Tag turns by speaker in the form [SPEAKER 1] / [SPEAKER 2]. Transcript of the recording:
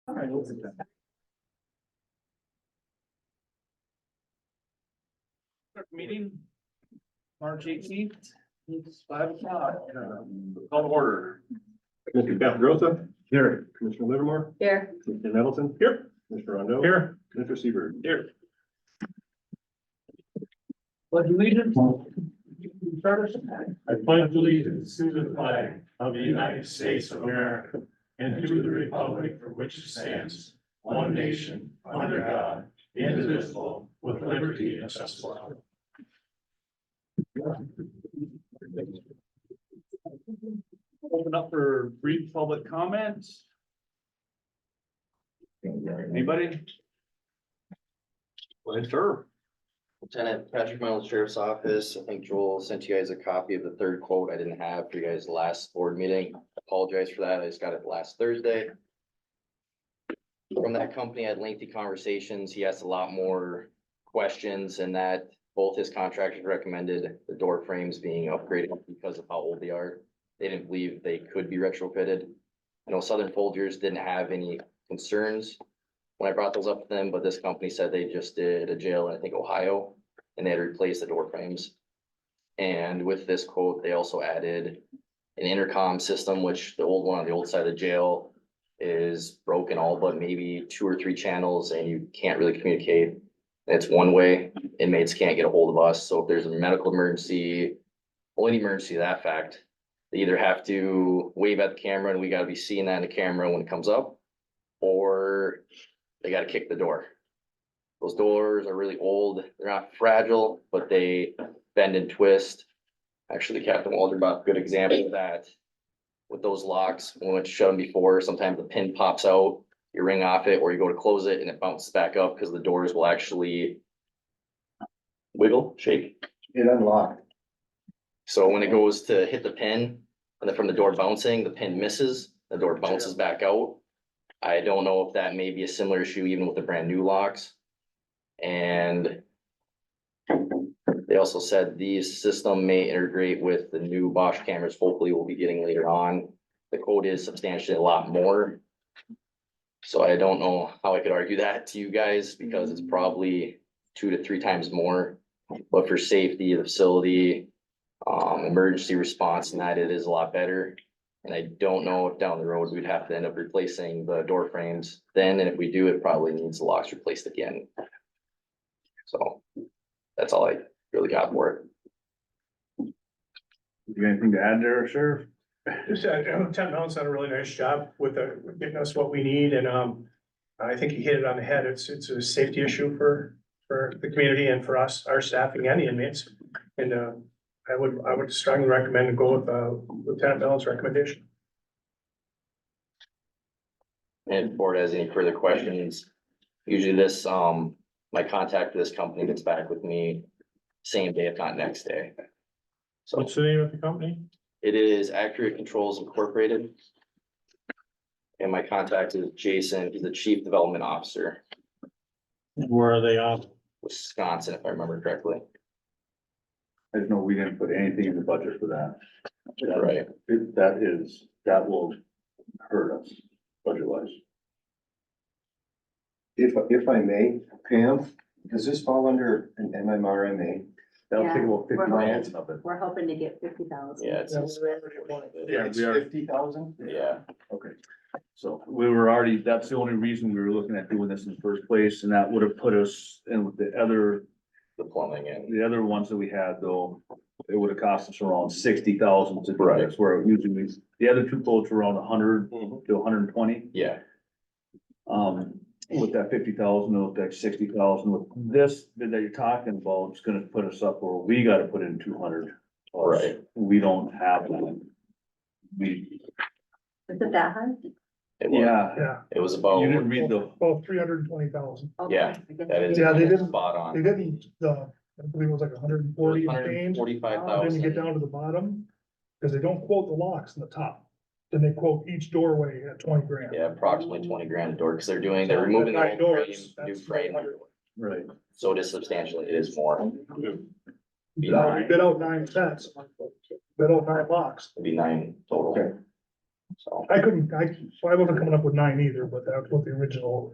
[SPEAKER 1] right, we'll do that. Start the Meeting, March eighteenth, it's five o'clock. Call to order.
[SPEAKER 2] Commissioner Capagrosa,
[SPEAKER 1] Here.
[SPEAKER 2] Commissioner Livermore,
[SPEAKER 3] Here,
[SPEAKER 2] Commissioner Nettleton. Here. Commissioner Rondo.
[SPEAKER 1] Here.
[SPEAKER 2] Commissioner Seaver.
[SPEAKER 1] Here. But allegiance. Start us.
[SPEAKER 4] I pledge allegiance to the flag of the United States of America and to the republic for which it stands, one nation, under God, indivisible, with liberty and justice for all.
[SPEAKER 1] Open up for brief public comments. Anybody?
[SPEAKER 5] Lieutenant Patrick Miles, Sheriff's Office. I think Joel sent you guys a copy of the third quote I didn't have for you guys last board meeting. Apologize for that. I just got it last Thursday. From that company, I had lengthy conversations. He asked a lot more questions and that both his contractors recommended the door frames being upgraded because of how old they are. They didn't believe they could be retrofitted. I know Southern Folgers didn't have any concerns when I brought those up to them, but this company said they just did a jail in, I think, Ohio, and they had replaced the door frames. And with this quote, they also added an intercom system, which the old one on the old side of the jail is broken all but maybe two or three channels, and you can't really communicate. It's one way, inmates can't get a hold of us, so if there's a medical emergency, or any emergency to that fact, they either have to wave at the camera, and we gotta be seeing that in the camera when it comes up, or they gotta kick the door. Those doors are really old, they're not fragile, but they bend and twist. Actually, Captain Walderbach, good example of that. With those locks, when it's shut them before, sometimes the pin pops out, you ring off it, or you go to close it and it bounces back up, because the doors will actually wiggle, shake.
[SPEAKER 2] It unlocked.
[SPEAKER 5] So when it goes to hit the pin, and then from the door bouncing, the pin misses, the door bounces back out. I don't know if that may be a similar issue even with the brand new locks. And they also said the system may integrate with the new Bosch cameras, hopefully we'll be getting later on. The code is substantially a lot more. So I don't know how I could argue that to you guys, because it's probably two to three times more. But for safety, the facility, um, emergency response and that it is a lot better. And I don't know if down the road we'd have to end up replacing the door frames then, and if we do, it probably needs the locks replaced again. So that's all I really got for it.
[SPEAKER 2] You got anything to add there, Sheriff?
[SPEAKER 6] Just, uh, Lieutenant Mellon's done a really nice job with, uh, with getting us what we need and, um, I think he hit it on the head. It's, it's a safety issue for, for the community and for us, our staffing and the inmates. And, uh, I would, I would strongly recommend to go with, uh, Lieutenant Mellon's recommendation.
[SPEAKER 5] And if the board has any further questions, usually this, um, my contact for this company gets back with me same day, if not next day. So
[SPEAKER 4] the name of the company?
[SPEAKER 5] it is Accurate Controls Incorporated. And my contact is Jason, he's the Chief Development Officer.
[SPEAKER 4] Where are they on?
[SPEAKER 5] Wisconsin, if I remember correctly.
[SPEAKER 2] I just know we didn't put anything in the budget for that.
[SPEAKER 5] Right.
[SPEAKER 2] It- That is, that will hurt us budget wise.
[SPEAKER 7] If, if I may, Pam, does this fall under an MMRMA?
[SPEAKER 2] That'll
[SPEAKER 3] Yeah,
[SPEAKER 2] take about
[SPEAKER 3] we're
[SPEAKER 2] fifty
[SPEAKER 3] hoping.
[SPEAKER 2] minutes of it.
[SPEAKER 3] we're hoping to get fifty thousand.
[SPEAKER 5] Yeah, it's-
[SPEAKER 2] Yeah,
[SPEAKER 7] It's
[SPEAKER 2] we are.
[SPEAKER 7] fifty thousand?
[SPEAKER 5] Yeah,
[SPEAKER 2] Okay. So we were already, that's the only reason we were looking at doing this in the first place, and that would have put us in with the other,
[SPEAKER 5] the plumbing and
[SPEAKER 2] the other ones that we had though. It would have cost us around sixty thousand to do this, where usually the other two quotes were around hundred
[SPEAKER 5] Mm-hmm.
[SPEAKER 2] to hundred and twenty.
[SPEAKER 5] yeah,
[SPEAKER 2] Um, with that fifty thousand, with that sixty thousand, with this bid that you're talking about, it's gonna put us up where we gotta put in two hundred.
[SPEAKER 5] Right.
[SPEAKER 2] We don't have that. We,
[SPEAKER 3] Is it that high?
[SPEAKER 5] it was,
[SPEAKER 2] yeah,
[SPEAKER 6] Yeah.
[SPEAKER 5] it was
[SPEAKER 2] you
[SPEAKER 5] about,
[SPEAKER 2] didn't read the,
[SPEAKER 6] Well, three hundred and twenty thousand.
[SPEAKER 3] Oh,
[SPEAKER 5] Yeah,
[SPEAKER 3] I guess
[SPEAKER 5] that
[SPEAKER 3] it
[SPEAKER 5] is.
[SPEAKER 6] Yeah, they didn't-
[SPEAKER 5] Spot on.
[SPEAKER 6] didn't, uh, I believe it was like hundred and
[SPEAKER 5] Forty-five
[SPEAKER 6] And Then you get
[SPEAKER 5] thousand,
[SPEAKER 6] down to the bottom, because they don't quote the locks in the top, then they quote each doorway at twenty grand.
[SPEAKER 5] yeah, approximately twenty grand a door, because they're doing, they're removing the
[SPEAKER 6] Nine
[SPEAKER 5] old frame,
[SPEAKER 6] doors,
[SPEAKER 5] new
[SPEAKER 6] that's
[SPEAKER 5] frame,
[SPEAKER 6] 900.
[SPEAKER 2] right,
[SPEAKER 5] so it is substantially, it is more, be
[SPEAKER 6] Now, we
[SPEAKER 5] nine,
[SPEAKER 6] bid out nine sets, bid out nine locks,
[SPEAKER 5] it'd be nine total.
[SPEAKER 7] Okay.
[SPEAKER 8] so.
[SPEAKER 6] I couldn't, I, so I wasn't coming up with nine either, but that's what the original